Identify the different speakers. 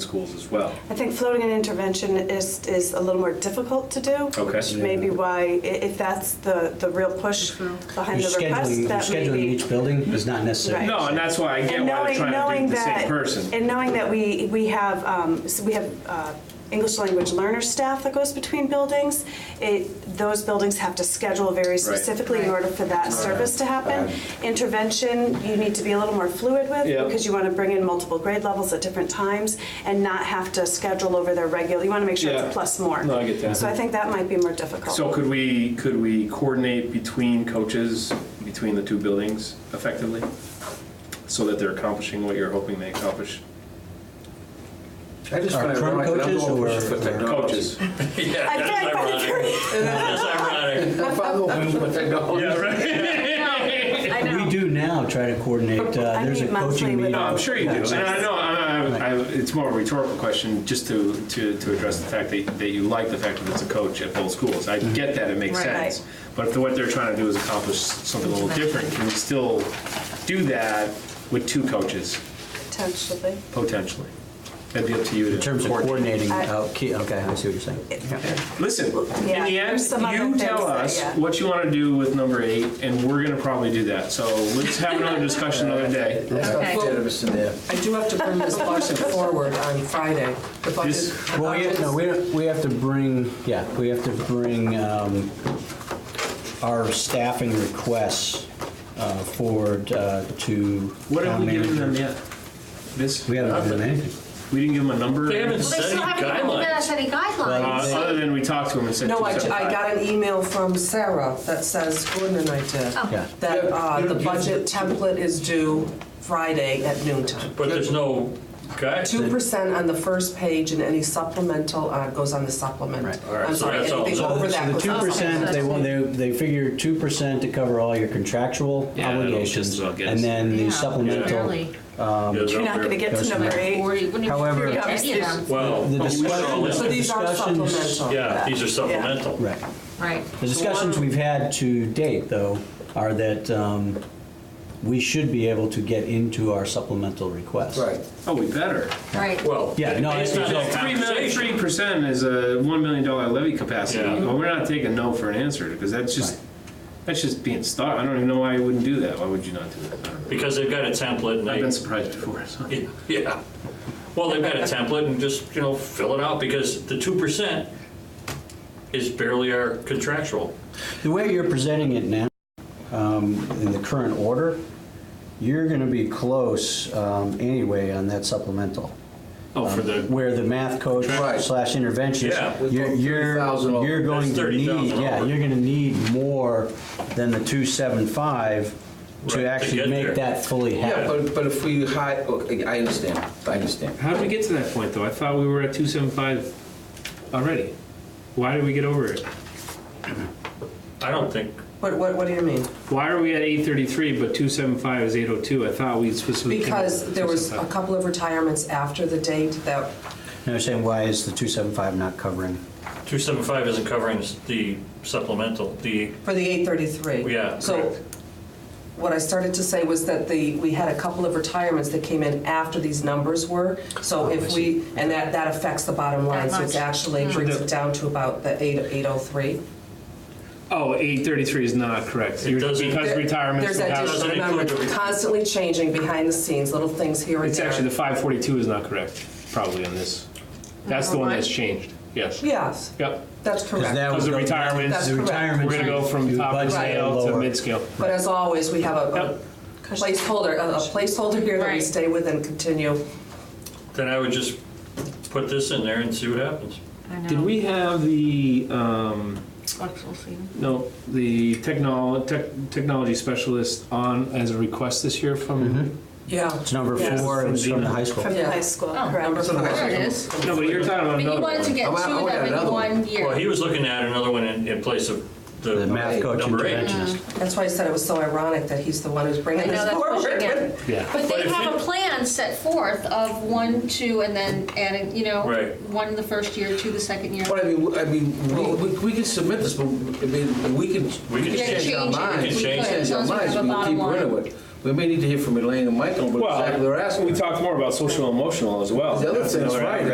Speaker 1: schools as well.
Speaker 2: I think floating an intervention is, is a little more difficult to do.
Speaker 1: Okay.
Speaker 2: Which may be why, i- if that's the, the real push behind
Speaker 3: Your
Speaker 2: the request,
Speaker 3: Mm-hmm. scheduling,
Speaker 2: that may
Speaker 3: scheduling
Speaker 2: be.
Speaker 3: each building is not necessary.
Speaker 2: Right.
Speaker 1: No, and that's why I get
Speaker 2: And
Speaker 1: why they're trying
Speaker 2: knowing,
Speaker 1: to
Speaker 2: knowing
Speaker 1: do the same
Speaker 2: that,
Speaker 1: person.
Speaker 2: and knowing that we, we have, um, so we have uh, English language learner staff that goes between buildings, it, those buildings have to schedule very specifically in
Speaker 4: Right.
Speaker 2: order for that service to happen. Intervention, you need to be a little more fluid with,
Speaker 1: Yeah.
Speaker 2: because you want to bring in multiple grade levels at different times and not have to schedule over their regular, you want to make sure it's
Speaker 1: Yeah.
Speaker 2: a plus more.
Speaker 1: No, I get that.
Speaker 2: So I think that might be more difficult.
Speaker 1: So could we, could we coordinate between coaches, between the two buildings effectively? So that they're accomplishing what you're hoping they accomplish?
Speaker 5: I just
Speaker 3: Our
Speaker 5: find it
Speaker 3: current
Speaker 5: ironic that I'm
Speaker 3: coaches
Speaker 5: the one
Speaker 3: or-
Speaker 5: pushing for
Speaker 3: or-
Speaker 5: technology.
Speaker 1: Coaches.
Speaker 6: Yeah,
Speaker 2: I
Speaker 6: that's
Speaker 2: feel like by the
Speaker 6: ironic. That's ironic.
Speaker 5: If I'm the one pushing for technology.
Speaker 1: Yeah, right.
Speaker 4: I know.
Speaker 3: We do now try to coordinate, uh,
Speaker 2: I
Speaker 3: there's a
Speaker 2: meet monthly with
Speaker 3: coaching meeting.
Speaker 1: No, I'm sure you do. And I know, I- I- I- it's more of a rhetorical question, just to, to, to address the fact that, that you like the fact that it's a coach at both schools. I get that, it makes
Speaker 2: Right.
Speaker 1: sense. But if what they're trying to do is accomplish something a little different, can we still do that with two coaches,
Speaker 2: potentially.
Speaker 1: potentially? That'd be up to you to.
Speaker 3: In terms of coordinating,
Speaker 2: I-
Speaker 3: out key- okay, I see what you're saying.
Speaker 1: Listen, in
Speaker 2: Yeah,
Speaker 1: the end,
Speaker 2: there's some other
Speaker 1: you
Speaker 2: things
Speaker 1: tell
Speaker 2: that,
Speaker 1: us
Speaker 2: yeah.
Speaker 1: what you want to do with number eight, and we're gonna probably do that. So let's have another discussion another day.
Speaker 5: Let's not
Speaker 4: Okay.
Speaker 5: get us in there.
Speaker 7: I do have to bring this budget forward on Friday. The budget.
Speaker 1: This-
Speaker 3: Well, we, no, we, don't- we have to bring, yeah, we have to bring um, our staffing requests uh, forward uh, to
Speaker 1: What have
Speaker 3: town
Speaker 1: we given them
Speaker 3: manager.
Speaker 1: yet? This,
Speaker 3: We haven't given them anything.
Speaker 1: we didn't give them a number.
Speaker 6: They haven't
Speaker 4: Well, they
Speaker 6: set
Speaker 4: still
Speaker 6: any
Speaker 4: haven't even given us
Speaker 6: guidelines.
Speaker 4: any
Speaker 1: Uh,
Speaker 4: guidelines.
Speaker 1: other than we talked to him and said.
Speaker 7: No, I, I
Speaker 1: 275.
Speaker 7: got an email from Sarah that says, Gordon and I
Speaker 3: Yeah.
Speaker 7: did, that uh, the budget template is due Friday at noon time.
Speaker 6: But there's no guide.
Speaker 7: Two percent on the first page and any supplemental uh, goes on the supplement.
Speaker 3: Right.
Speaker 6: right,
Speaker 7: I'm
Speaker 6: so
Speaker 7: sorry,
Speaker 6: that's all.
Speaker 7: anything
Speaker 6: So
Speaker 3: So
Speaker 7: over that
Speaker 3: the
Speaker 7: goes
Speaker 3: two
Speaker 7: on.
Speaker 3: percent, they, want- they, they figure two percent to cover all your contractual
Speaker 1: Yeah, that'll just
Speaker 3: obligations,
Speaker 1: about get us.
Speaker 3: and then
Speaker 4: Yeah,
Speaker 3: the supplemental.
Speaker 4: barely.
Speaker 2: You're not going to get to
Speaker 3: Doesn't
Speaker 2: number
Speaker 3: matter.
Speaker 2: eight.
Speaker 4: Forty- wouldn't even
Speaker 3: However-
Speaker 4: be any of them.
Speaker 6: Well,
Speaker 3: The
Speaker 6: we
Speaker 3: discussion-
Speaker 6: saw
Speaker 7: So
Speaker 6: that.
Speaker 7: these are
Speaker 3: Discussions-
Speaker 7: supplemental.
Speaker 6: yeah, these are supplemental.
Speaker 3: Right.
Speaker 4: Right.
Speaker 3: The discussions we've had to date, though, are that um, we should be able to get into our supplemental request.
Speaker 5: Right.
Speaker 1: Oh, we better.
Speaker 4: Right.
Speaker 6: Well,
Speaker 3: Yeah, no,
Speaker 6: based
Speaker 3: it's-
Speaker 6: on that
Speaker 1: Three million,
Speaker 6: conversation.
Speaker 1: three percent is a one million dollar levy capacity.
Speaker 6: Yeah.
Speaker 1: Well, we're not taking no for an answer because that's just, that's just being stuck. I don't even know why you wouldn't do that. Why would you not do that? I don't know.
Speaker 6: Because they've got a template
Speaker 1: I've been
Speaker 6: and
Speaker 1: surprised before, so.
Speaker 6: they, yeah. Well, they've got a template and just, you know, fill it out because the two percent is barely our contractual.
Speaker 3: The way you're presenting it now, um, in the current order, you're going to be close um, anyway on that supplemental.
Speaker 6: Oh, for the,
Speaker 3: Um, Where the math coach
Speaker 5: Right.
Speaker 3: slash
Speaker 6: Yeah.
Speaker 3: interventionist, you're,
Speaker 5: $30,000
Speaker 3: you're,
Speaker 5: over.
Speaker 3: you're going
Speaker 6: That's
Speaker 3: to need,
Speaker 6: $30,000
Speaker 3: yeah,
Speaker 6: over.
Speaker 3: you're going to need more than the 275
Speaker 6: Right, to
Speaker 3: to actually
Speaker 6: get
Speaker 3: make
Speaker 6: there.
Speaker 3: that fully
Speaker 5: Yeah,
Speaker 3: happen.
Speaker 5: but, but if we hide, okay, I understand, I understand.
Speaker 1: How did we get to that point though? I thought we were at two seven five already. Why did we get over it?
Speaker 6: I don't think,
Speaker 7: What, what, what do you mean?
Speaker 1: Why are we at eight thirty-three but two seven five is eight oh two? I thought we specifically.
Speaker 7: Because there was a couple of retirements after the date that
Speaker 3: And I'm saying, why is the 275 not covering?
Speaker 6: two seven five isn't covering the supplemental, the,
Speaker 7: For the 833?
Speaker 6: Yeah,
Speaker 7: So
Speaker 6: correct.
Speaker 7: what I started to say was that the, we had a couple of retirements that came in after these numbers were. So if we, and that, that affects the bottom line. So it's
Speaker 4: much.
Speaker 7: actually brings it down to about the 8 803.
Speaker 1: Oh, eight thirty-three is not correct.
Speaker 6: It
Speaker 1: You're-
Speaker 6: doesn't-
Speaker 1: Because retirements.
Speaker 7: There's
Speaker 1: will have-
Speaker 7: additional,
Speaker 6: Doesn't
Speaker 7: remember,
Speaker 6: include the-
Speaker 7: constantly changing behind the scenes, little things here and
Speaker 1: It's
Speaker 7: there.
Speaker 1: actually, the five forty-two is not correct, probably on this. That's the one that's changed, yes.
Speaker 7: Yes,
Speaker 1: Yep,
Speaker 7: that's correct.
Speaker 3: that
Speaker 1: because the retirements,
Speaker 7: That's
Speaker 3: The
Speaker 1: we're
Speaker 7: correct.
Speaker 3: retirement.
Speaker 1: gonna go from top
Speaker 3: budget
Speaker 1: scale to
Speaker 3: lower.
Speaker 1: mid-scale.
Speaker 7: But as always, we have a-
Speaker 1: Yep.
Speaker 7: a placeholder, a a placeholder here that we
Speaker 4: Right.
Speaker 7: stay with and continue.
Speaker 6: then I would just put this in there and see what happens.
Speaker 4: I know.
Speaker 1: Did we have the, um,
Speaker 4: Flexible seating.
Speaker 1: no, the technol, tech, technology specialist on as a request this year from?
Speaker 7: Yeah.
Speaker 3: It's number
Speaker 1: Yes.
Speaker 3: four, it's from the high school.
Speaker 2: From the
Speaker 7: Yeah.
Speaker 2: high school,
Speaker 4: Oh.
Speaker 2: correct.
Speaker 7: Number four.
Speaker 4: There it is.
Speaker 1: No, but you're talking about
Speaker 4: But you
Speaker 1: another
Speaker 4: wanted to
Speaker 1: one.
Speaker 4: get
Speaker 5: I
Speaker 4: two
Speaker 5: want- I
Speaker 4: of
Speaker 5: want
Speaker 4: them in
Speaker 5: another one.
Speaker 4: one year.
Speaker 6: Well, he was looking at another one in, in place of the.
Speaker 3: The math coach
Speaker 6: Number eight.
Speaker 3: interventionist.
Speaker 7: That's why I said it was so ironic that he's the one who's
Speaker 4: I
Speaker 7: bringing
Speaker 4: know
Speaker 7: this
Speaker 4: that's pushing
Speaker 7: forward.
Speaker 4: it.
Speaker 1: Yeah,
Speaker 4: But
Speaker 6: But
Speaker 4: they
Speaker 6: if
Speaker 4: have a
Speaker 6: it-
Speaker 4: plan set forth of one, two, and then adding, you know,
Speaker 6: Right.
Speaker 4: one the first year, two the second year.
Speaker 5: But I mean, I mean, we, we- we can submit this, but, I mean, we can.
Speaker 6: We can
Speaker 4: Yeah,
Speaker 6: change
Speaker 4: change
Speaker 5: our
Speaker 4: it.
Speaker 5: minds.
Speaker 4: We
Speaker 6: Change
Speaker 4: could,
Speaker 6: it.
Speaker 4: as
Speaker 5: Change our
Speaker 4: long as
Speaker 5: minds,
Speaker 4: we have a
Speaker 5: we can
Speaker 4: bottom
Speaker 5: keep
Speaker 4: line.
Speaker 5: running with. We may need to hear from Elaine and Michael, but
Speaker 6: Well,
Speaker 5: exactly what we're asking.
Speaker 6: We talked more about social and emotional as well.
Speaker 5: The other
Speaker 6: That's
Speaker 5: thing is
Speaker 6: another
Speaker 5: right,